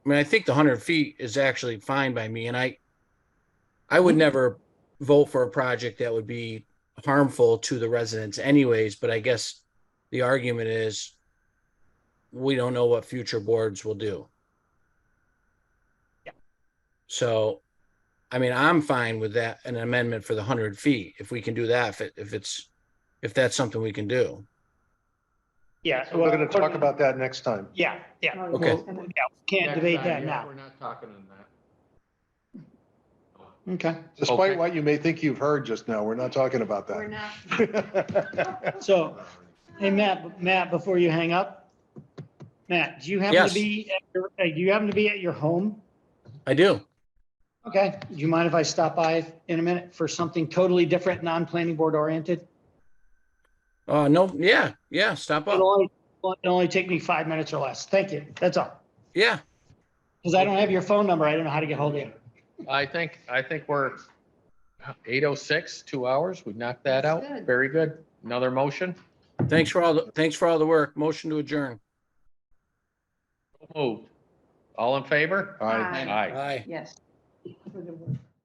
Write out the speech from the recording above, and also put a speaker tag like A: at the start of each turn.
A: I mean, I think the hundred feet is actually fine by me and I, I
B: Mm-hmm.
A: would never vote for a project that would be harmful to the residents anyways, but I guess the argument is we don't know what future boards will do.
B: Yeah.
A: So, I mean, I'm fine with that, an amendment for the hundred feet, if we can do that, if it, if it's, if that's something we can do.
B: Yeah.
C: So we're gonna
B: well,
C: talk about that next time.
B: Yeah, Oh, yeah,
A: Okay.
B: yeah, we can't
D: Next
B: debate
D: time,
B: that
D: yeah,
B: now.
D: We're not talking on that.
B: Okay,
C: Despite
D: Okay.
C: what you may think you've heard just now, we're not talking about
E: We're
C: that.
E: not.
B: so, hey, Matt, Matt, before you hang up, Matt, do you happen
A: Yes.
B: to be, at your- uh, do you happen to be at your home?
A: I do.
B: Okay, do you mind if I stop by in a minute for something totally different, non-planning board oriented?
A: Uh, no, yeah, yeah, stop
B: It'll
A: up.
B: only, it'll only take me five minutes or less. Thank you, that's all.
A: Yeah,
B: Because I don't have your phone number, I don't know how to get hold of you.
D: I think, I think we're eight oh six, two hours. We knocked that out.
E: That's good.
D: Very good. Another motion.
A: thanks for all, the thanks for all the work. Motion to adjourn.
D: Moved. All in favor?
C: All right.
D: Aye.
E: Yes.